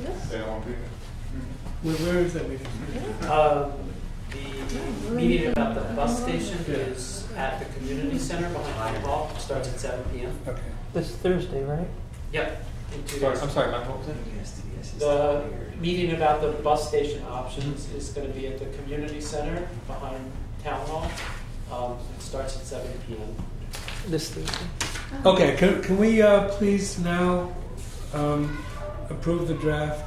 They don't do it. Where, where is that meeting? Uh, The meeting about the bus station is at the community center behind the Hall, starts at seven PM. Okay. This Thursday, right? Yep. in two Sorry, days. I'm sorry, Matt, what was it? The meeting about the bus station options is gonna be at the community center behind Town Hall. Um, It starts at seven PM. This Thursday. Okay, can, can we uh, please now um, approve the draft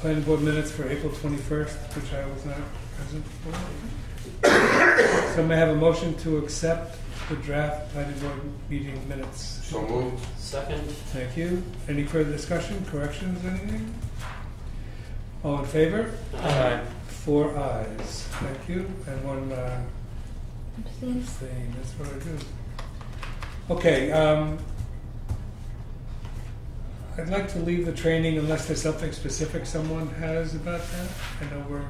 planning board minutes for April 21st, which I was not present for? So may I have a motion to accept the draft planning board meeting minutes? So moved. Second, Thank you. Any further discussion, corrections, anything? All in favor? uh, Four ayes. Thank you. And one uh, Abstain. abstain. That's what I do. Okay. Um, I'd like to leave the training unless there's something specific someone has about that. I know we're.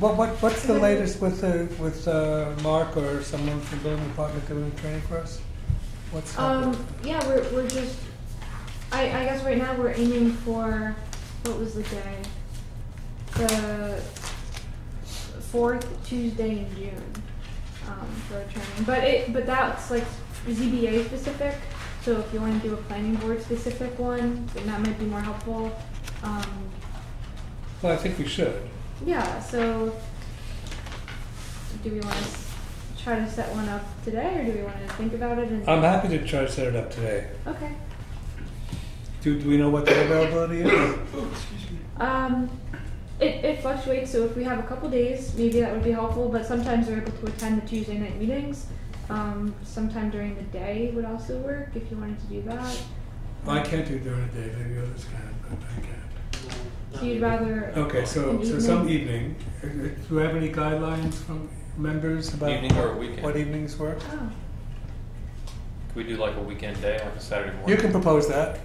What, what, what's the latest with the, with uh, Mark or someone from building department doing the training for us? What's happening? Um, yeah, we're, we're just, I, I guess right now we're aiming for, what was the day? The fourth Tuesday in June, um, for a training, but it, but that's like ZBA specific, so if you wanna do a planning board specific one, then that might be more helpful. Um, Well, I think we should. yeah, so do we wanna s- try to set one up today, or do we wanna think about it and? I'm happy to try to set it up today. Okay. Do, do we know what the availability is? Um, it, it fluctuates, so if we have a couple days, maybe that would be helpful, but sometimes we're able to attend the Tuesday night meetings. Um, sometime during the day would also work if you wanted to do that. I can't do during the day, maybe others can, but I can't. no, So you'd rather, Okay, so, so some evening, Uh, do you have any guidelines from members about? Evening or weekend? What evenings work? oh, Could we do like a weekend day, like a Saturday morning? You can propose that,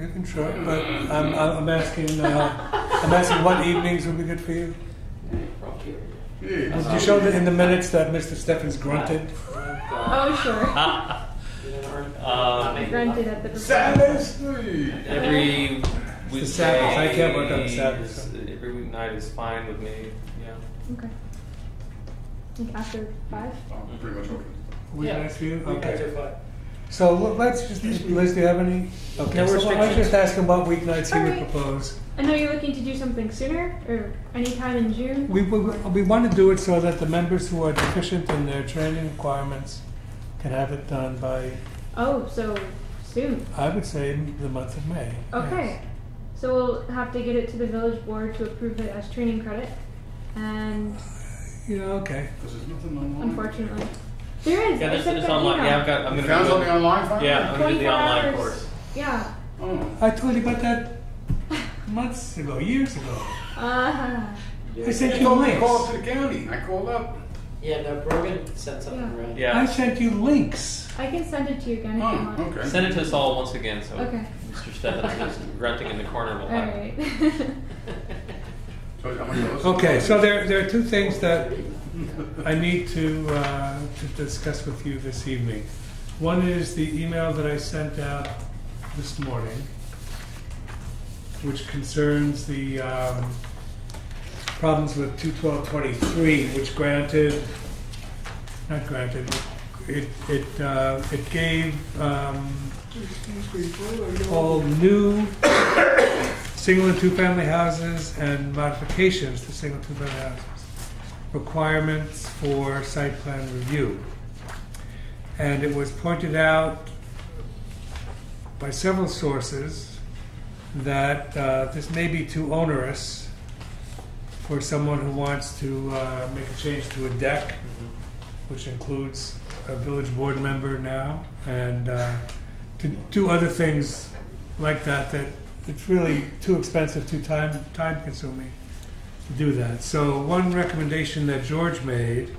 you can, sure, but I'm, I'm I'm asking, uh, I'm asking what evenings would be good for you? Did you show that in the minutes that Mr. Steffens grunted? Uh, oh, sure, you know, or- Um, maybe not. granted at the. Saturdays? Hey. Every weekday. Sabbath. I can't work on Sabbath, is- so. Every weeknight is fine with me, yeah. Okay. Like after five? I'm pretty much open. Would Yeah. that ask you? We can Okay. do five. So let- let's just, Liz, do you have any? Okay, No so why don't you restrictions. just ask him about weeknights he would Alright. propose? I know you're looking to do something sooner, or anytime in June? We, we, um, we want to do it so that the members who are deficient in their training requirements can have it done by, Oh, so soon, I would say, the month of May. okay. So we'll have to get it to the village board to approve it as training credit, and Yes. Yeah, okay. Because there's nothing online. Unfortunately. There is. Yeah, this it's at is the online, email. yeah, I've got, I'm You gonna. found do something it. online, finally? Yeah, I'm gonna do the 24 online hours. course. Yeah. Oh. I told you about that months ago, years ago. Uh, I sent You you told me to call up links. to the county. I called up. Yeah, no, Brogan sent something, right? Yeah. I sent you links. I can send it to you again if you Oh, want. okay. Send it to us all once again, so Okay. Mr. Stephens is grunting in the corner will All have. right. So I'm gonna listen. Okay, so there, there are two things that I need to, uh, to discuss with you this evening. One is the email that I sent out this morning, which concerns the um, problems with 21223, which granted, not granted, it, it, uh, it gave um, all new single and two-family houses and modifications to single and two-family houses requirements for site plan review. And it was pointed out by several sources that uh, this may be too onerous for someone who wants to uh, make a change to a deck, which includes a village board member now, and uh, to do other things like that, that it's really too expensive, too time, time consuming to do that. So one recommendation that George made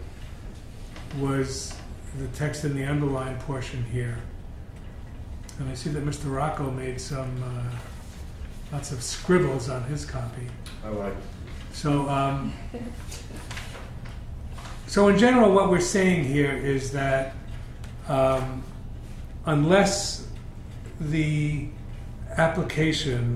was the text in the underlined portion here. And I see that Mr. Rocco made some, uh, lots of scribbles on his copy. I like. So, um, so in general, what we're saying here is that um, unless the application